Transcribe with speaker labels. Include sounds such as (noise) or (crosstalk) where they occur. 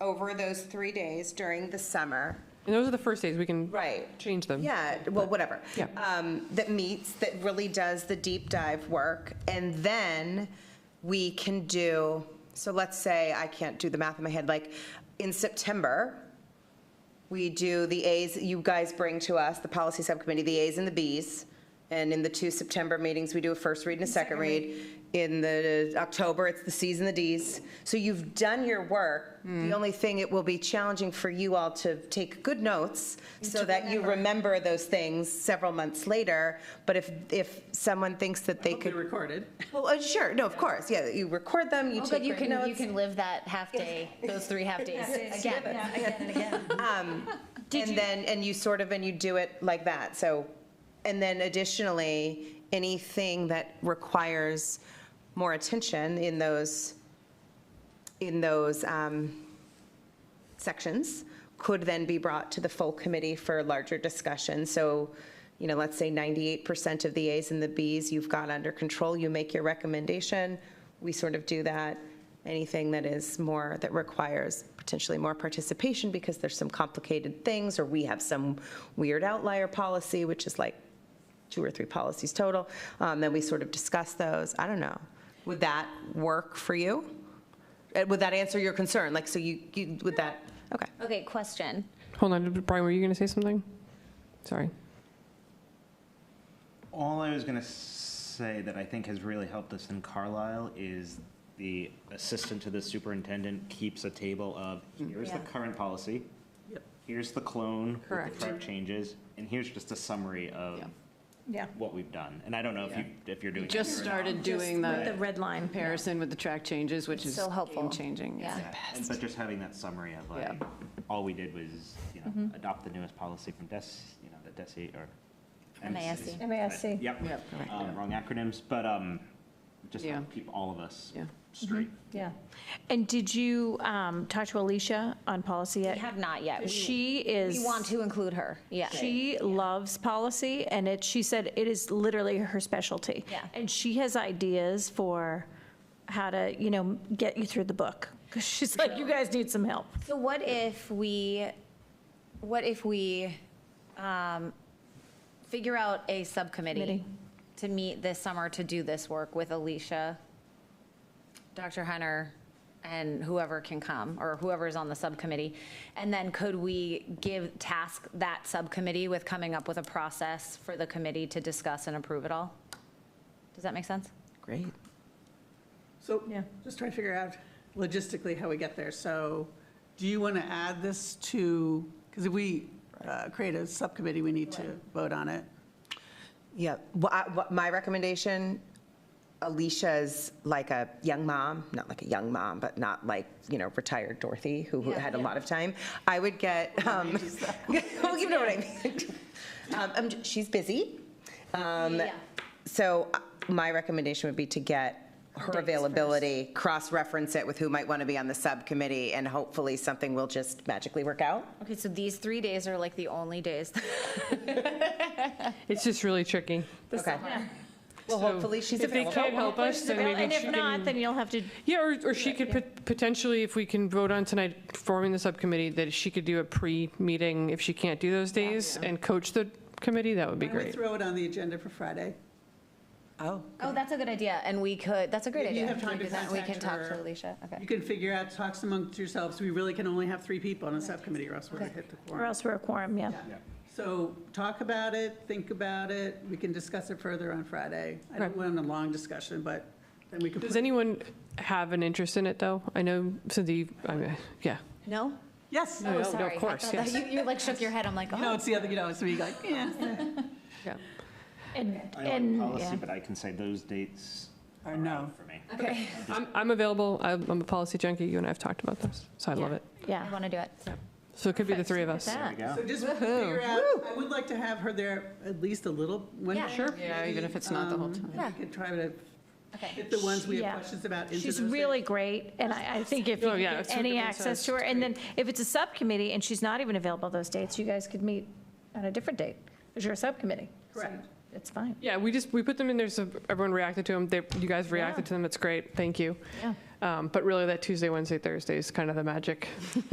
Speaker 1: over those three days during the summer.
Speaker 2: And those are the first days, we can
Speaker 1: Right.
Speaker 2: change them.
Speaker 1: Yeah, well, whatever.
Speaker 2: Yeah.
Speaker 1: Um, That meets, that really does the deep dive work. And then we can do, so let's say, I can't do the math in my head, like, in September, we do the As, that you guys bring to us, the policy subcommittee, the As and the Bs. And in the two September meetings, we do a first read and a second read. In the October, it's the Cs and the Ds. So you've done your work.
Speaker 3: Hmm.
Speaker 1: The only thing, it will be challenging for you all to take good notes so that you remember those things several months later. But if, if someone thinks that
Speaker 3: Oh,
Speaker 1: they
Speaker 4: Hopefully
Speaker 1: could,
Speaker 4: recorded.
Speaker 1: well, uh, sure, no, of course, yeah, you record them, you
Speaker 3: Oh,
Speaker 1: take
Speaker 3: good, you
Speaker 1: great
Speaker 3: can, you
Speaker 1: notes.
Speaker 3: can live that half (laughs) day, those three half days again.
Speaker 1: Um, And then, and you sort of, and you do it like that, so, and then additionally, anything that requires more attention in those, in those um, sections could then be brought to the full committee for larger discussion. So, you know, let's say 98% of the As and the Bs you've got under control, you make your recommendation, we sort of do that. Anything that is more, that requires potentially more participation because there's some complicated things, or we have some weird outlier policy, which is like two or three policies total, um, then we sort of discuss those. I don't know. Would that work for you? Uh, Would that answer your concern? Like, so you, you, would that, okay.
Speaker 3: Okay, question.
Speaker 2: Hold on, Brian, were you going to say something? Sorry.
Speaker 5: All I was going to say that I think has really helped us in Carlisle is the assistant to the superintendent keeps a table of, here's the
Speaker 3: Yeah.
Speaker 5: current policy,
Speaker 4: Yep.
Speaker 5: here's the clone, with
Speaker 2: Correct.
Speaker 5: the correct changes, and here's just a summary of
Speaker 6: Yeah.
Speaker 5: what we've done. And I don't know if you, if you're doing.
Speaker 7: Just
Speaker 5: that or not.
Speaker 7: started doing
Speaker 6: With the
Speaker 7: the
Speaker 6: red line.
Speaker 7: comparison with the track changes, which
Speaker 3: It's
Speaker 7: is
Speaker 3: so helpful.
Speaker 7: game-changing. It's-
Speaker 3: Yeah.
Speaker 5: Yeah, and- But just having that summary of like,
Speaker 7: Yeah.
Speaker 5: all we did was, you know, adopt the newest policy from DES, you know, the DESE or.
Speaker 3: MASC.
Speaker 5: E.
Speaker 6: MASC.
Speaker 5: Yep,
Speaker 7: Yep.
Speaker 5: um, wrong acronyms, but, um, just
Speaker 7: Yeah.
Speaker 5: keep all of us
Speaker 7: Yeah.
Speaker 5: straight.
Speaker 6: Yeah. And did you um, talk to Alicia on policy
Speaker 3: We
Speaker 6: yet?
Speaker 3: have not yet. We-
Speaker 6: She is.
Speaker 3: We want to include her, yeah.
Speaker 6: She loves policy, and it, she said it is literally her specialty.
Speaker 3: Yeah.
Speaker 6: And she has ideas for how to, you know, get you through the book. 'Cause she's like, you guys need some help.
Speaker 3: So what if we, what if we um, figure out a subcommittee
Speaker 6: Committee.
Speaker 3: to meet this summer to do this work with Alicia, Dr. Hunter, and whoever can come, or whoever's on the subcommittee? And then could we give, task that subcommittee with coming up with a process for the committee to discuss and approve it all? Does that make sense?
Speaker 2: Great.
Speaker 4: So,
Speaker 6: Yeah.
Speaker 4: just trying to figure out logistically how we get there. So, do you want to add this to, because if we uh, create a subcommittee, we need to vote on it.
Speaker 1: Yeah, well, I- what- my recommendation, Alicia's like a young mom, not like a young mom, but not like, you know, retired Dorothy, who who had a lot of time. I would get, um, (laughs) well, you know what I mean. Um, I'm j- She's busy,
Speaker 3: Yeah.
Speaker 1: so uh, my recommendation would be to get her availability, cross-reference it with who might want to be on the subcommittee, and hopefully something will just magically work out.
Speaker 3: Okay, so these three days are like the only days
Speaker 2: It's just really tricky.
Speaker 3: this
Speaker 1: Okay.
Speaker 3: summer.
Speaker 1: Well,
Speaker 2: So
Speaker 1: hopefully she's
Speaker 2: If they
Speaker 1: available.
Speaker 2: can't help us, then
Speaker 6: And
Speaker 2: maybe
Speaker 6: if
Speaker 2: she
Speaker 6: not,
Speaker 2: can.
Speaker 6: then you'll have to,
Speaker 2: Yeah, or, or she could pot- potentially, if we can vote on tonight, forming the subcommittee, that she could do a pre-meeting if she can't do those days and coach the committee, that would be
Speaker 4: Why don't we
Speaker 2: great.
Speaker 4: throw it on the agenda for Friday?
Speaker 1: Oh.
Speaker 3: Oh, that's a good idea, and we could, that's a great
Speaker 4: If
Speaker 3: idea.
Speaker 4: you have
Speaker 3: Can we
Speaker 4: time to
Speaker 3: do that? We
Speaker 4: contact
Speaker 3: can talk to
Speaker 4: her.
Speaker 3: Alicia,
Speaker 4: You
Speaker 3: okay.
Speaker 4: can figure out, talk amongst yourselves, we really can only have three people on a subcommittee, or else we're going to hit the
Speaker 6: or
Speaker 4: quorum.
Speaker 6: else we're a quorum, yeah.
Speaker 4: So, talk about it, think about it, we can discuss it further on Friday. I don't
Speaker 2: Okay.
Speaker 4: want a long discussion, but then we can.
Speaker 2: Does anyone have an interest in it, though? I know Cindy, I mean, yeah.
Speaker 3: No?
Speaker 4: Yes,
Speaker 2: No,
Speaker 3: Oh,
Speaker 2: no,
Speaker 3: sorry.
Speaker 2: Of
Speaker 3: I
Speaker 2: course,
Speaker 3: thought that-
Speaker 2: yes,
Speaker 3: You you, like shook your head, I'm like,
Speaker 4: you know,
Speaker 3: oh.
Speaker 4: it's the other, you know, it's me like, yeah.
Speaker 2: yeah.
Speaker 6: And,
Speaker 5: I
Speaker 6: and,
Speaker 5: like
Speaker 6: yeah.
Speaker 5: policy, but I can say those dates
Speaker 4: Or
Speaker 5: are
Speaker 4: no.
Speaker 5: out for me.
Speaker 3: Okay.
Speaker 2: I'm, I'm available, I'm I'm a policy junkie, you and I have talked about this, so I love
Speaker 6: Yeah.
Speaker 2: it.
Speaker 3: I
Speaker 6: Yeah.
Speaker 3: want to do it.
Speaker 2: So it could be the three of us.
Speaker 5: There we
Speaker 4: So
Speaker 5: go.
Speaker 4: just figure out, I would like to have her there at least a little, when.
Speaker 3: Yeah. Sure.
Speaker 7: Yeah, even if it's not the whole time.
Speaker 4: We could try to
Speaker 3: Okay.
Speaker 4: get the ones we
Speaker 6: Yeah.
Speaker 4: have questions about into
Speaker 6: She's
Speaker 4: those
Speaker 6: really great, and I, I think if you
Speaker 2: Oh,
Speaker 6: could
Speaker 2: yeah,
Speaker 6: get
Speaker 2: it's
Speaker 6: any
Speaker 2: 100%
Speaker 6: access to her, and then if it's a subcommittee and she's not even available those dates, you guys could meet on a different date, because you're a subcommittee. So
Speaker 4: Correct.
Speaker 6: It's fine.
Speaker 2: Yeah, we just, we put them in there so everyone reacted to them. They, you guys reacted to them. It's great. Thank you.
Speaker 6: Yeah.
Speaker 2: Um, But really, that Tuesday, Wednesday, Thursday is kind of the magic (laughs)